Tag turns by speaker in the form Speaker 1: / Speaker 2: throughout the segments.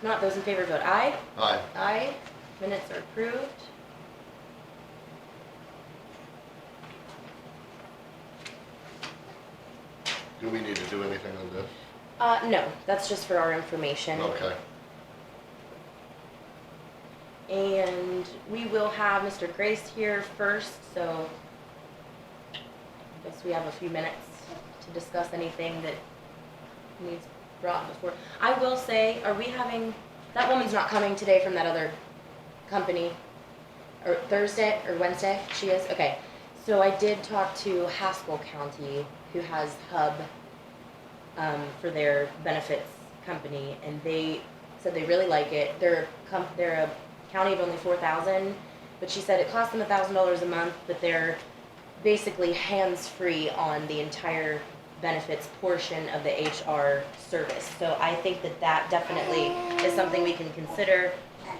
Speaker 1: Not those in favor vote aye.
Speaker 2: Aye.
Speaker 1: Aye. Minutes are approved.
Speaker 2: Do we need to do anything on this?
Speaker 1: Uh, no, that's just for our information.
Speaker 2: Okay.
Speaker 1: And we will have Mr. Grace here first, so I guess we have a few minutes to discuss anything that needs brought before. I will say, are we having, that woman's not coming today from that other company, or Thursday or Wednesday? She is, okay. So I did talk to Haskell County, who has Hub, um, for their benefits company, and they said they really like it. They're a com- they're a county of only four thousand, but she said it costs them a thousand dollars a month, but they're basically hands free on the entire benefits portion of the HR service. So I think that that definitely is something we can consider,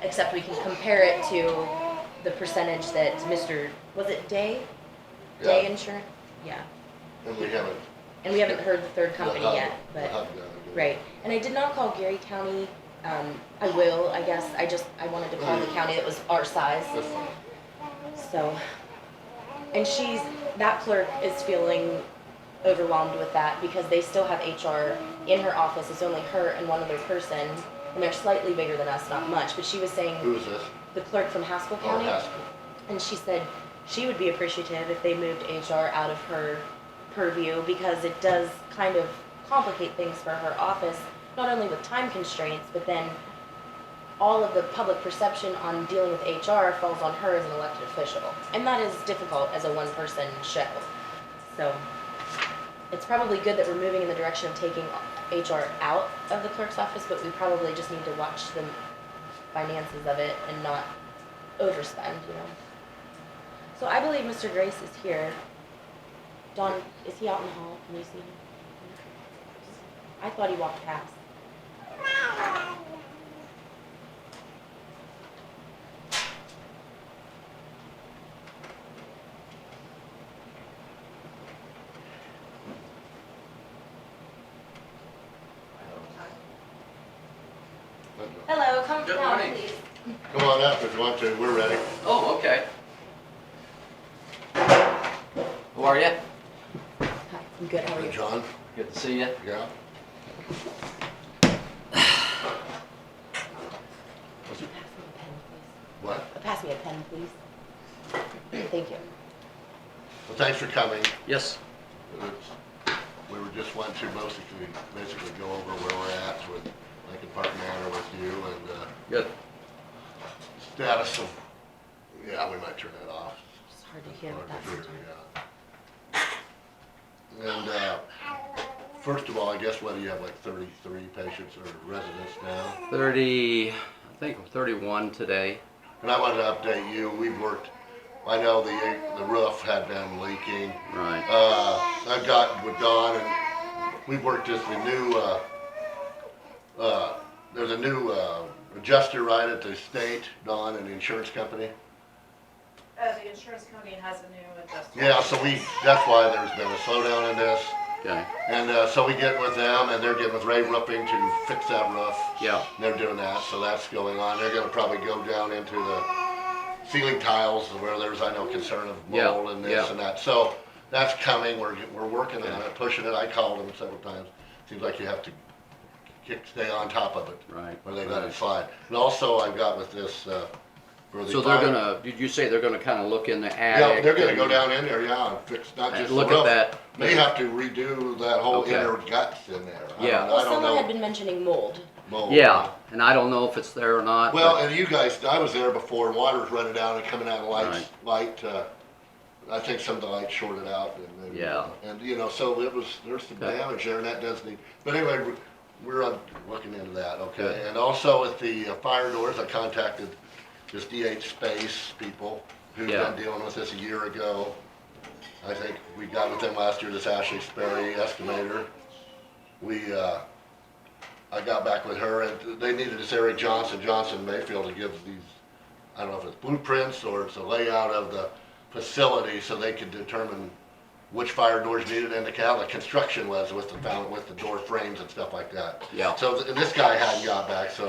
Speaker 1: except we can compare it to the percentage that Mr. was it Day Day
Speaker 2: Yeah,
Speaker 1: Insurance, yeah.
Speaker 2: And we haven't.
Speaker 1: And we haven't heard the third
Speaker 2: the
Speaker 1: company
Speaker 2: hub-
Speaker 1: yet,
Speaker 2: the
Speaker 1: but.
Speaker 2: hub down there.
Speaker 1: Right, and I did not call Gary County, um, I will, I guess, I just, I wanted to call the county that was our size,
Speaker 2: That's fine.
Speaker 1: so. And she's, that clerk is feeling overwhelmed with that because they still have HR in her office, it's only her and one other person, and they're slightly bigger than us, not much, but she was saying,
Speaker 2: Who is this?
Speaker 1: the clerk from Haskell
Speaker 2: Oh,
Speaker 1: County,
Speaker 2: Haskell.
Speaker 1: and she said she would be appreciative if they moved HR out of her purview because it does kind of complicate things for her office, not only with time constraints, but then all of the public perception on dealing with HR falls on her as an elected official. And that is difficult as a one person show. So it's probably good that we're moving in the direction of taking HR out of the clerk's office, but we probably just need to watch the finances of it and not overspend, you know? So I believe Mr. Grace is here. Don, is he out in the hall? Can you see him? I thought he walked past. Hello, come
Speaker 3: Good
Speaker 1: down,
Speaker 3: morning.
Speaker 1: please.
Speaker 2: Come on up if you want to, we're ready.
Speaker 3: Oh, okay. Who are you?
Speaker 1: Hi, I'm good, how are
Speaker 2: And
Speaker 1: you?
Speaker 2: John,
Speaker 3: Good to see you.
Speaker 2: yeah?
Speaker 1: Could you pass me a pen, please?
Speaker 2: What?
Speaker 1: Uh, Pass me a pen, please. Thank you.
Speaker 2: Well, thanks for coming.
Speaker 3: Yes.
Speaker 2: It's- We were just wanting to mostly, basically go over where we're at with Lincoln Park Manor with you and, uh,
Speaker 3: Good.
Speaker 2: status of, yeah, we might turn that off.
Speaker 1: It's hard to hear
Speaker 2: Hard
Speaker 1: with that
Speaker 2: to hear,
Speaker 1: sometimes.
Speaker 2: yeah. And, uh, first of all, I guess whether you have like thirty-three patients or residents now,
Speaker 3: Thirty, I think I'm thirty-one today.
Speaker 2: and I wanted to update you, we've worked, I know the, the roof had been leaking.
Speaker 3: Right.
Speaker 2: Uh, I got with Don and we worked this, the new, uh, uh, there's a new, uh, adjuster right at the state, Don, and the insurance company.
Speaker 4: Uh, the insurance company has a new adjuster.
Speaker 2: Yeah, so we, that's why there's been a slowdown in this.
Speaker 3: Okay.
Speaker 2: And uh, so we get with them, and they're getting with Ray Roofing to fix that roof.
Speaker 3: Yeah.
Speaker 2: And They're doing that, so that's going on. They're gonna probably go down into the ceiling tiles where there's, I know, concern of
Speaker 3: Yeah,
Speaker 2: mold and this
Speaker 3: yeah.
Speaker 2: and that. So that's coming. We're, we're working on it, pushing it. I called them several times. Seems like you have to kick, stay on top of it
Speaker 3: Right.
Speaker 2: where they let it
Speaker 3: right.
Speaker 2: slide. And also, I've got with this, uh, for the.
Speaker 3: So they're
Speaker 2: fire-
Speaker 3: gonna, did you say they're gonna kinda look in the attic?
Speaker 2: Yeah, they're gonna
Speaker 3: and-
Speaker 2: go down in there, yeah, and fix, not
Speaker 3: and
Speaker 2: just the
Speaker 3: Look at
Speaker 2: roof.
Speaker 3: that.
Speaker 2: They have to redo that whole
Speaker 3: Okay.
Speaker 2: inner guts in there. I
Speaker 3: Yeah.
Speaker 2: don't-
Speaker 1: Well,
Speaker 2: I don't
Speaker 1: someone had
Speaker 2: know.
Speaker 1: been mentioning mold.
Speaker 2: mold.
Speaker 3: Yeah, and I don't know if it's there or not.
Speaker 2: Well,
Speaker 3: but-
Speaker 2: and you guys, I was there before, water's running down and coming out of lights,
Speaker 3: Right.
Speaker 2: light, uh, I think some of the lights shorted out and then.
Speaker 3: Yeah.
Speaker 2: And, you know, so it was, there's some
Speaker 3: Okay.
Speaker 2: damage there and that does need, but anyway, we're- we're on, looking into that, okay?
Speaker 3: Good.
Speaker 2: And also with the uh, fire doors, I contacted this DH Space people who've
Speaker 3: Yeah.
Speaker 2: been dealing with this a year ago. I think we got with them last year, this Ashley Sperry estimator. We, uh, I got back with her and they needed this Eric Johnson, Johnson Mayfield to give these, I don't know if it's blueprints or it's a layout of the facility so they could determine which fire doors needed and the kind of construction was with the, found- with the door frames and stuff like that.
Speaker 3: Yeah.
Speaker 2: So th- and this guy hadn't got back, so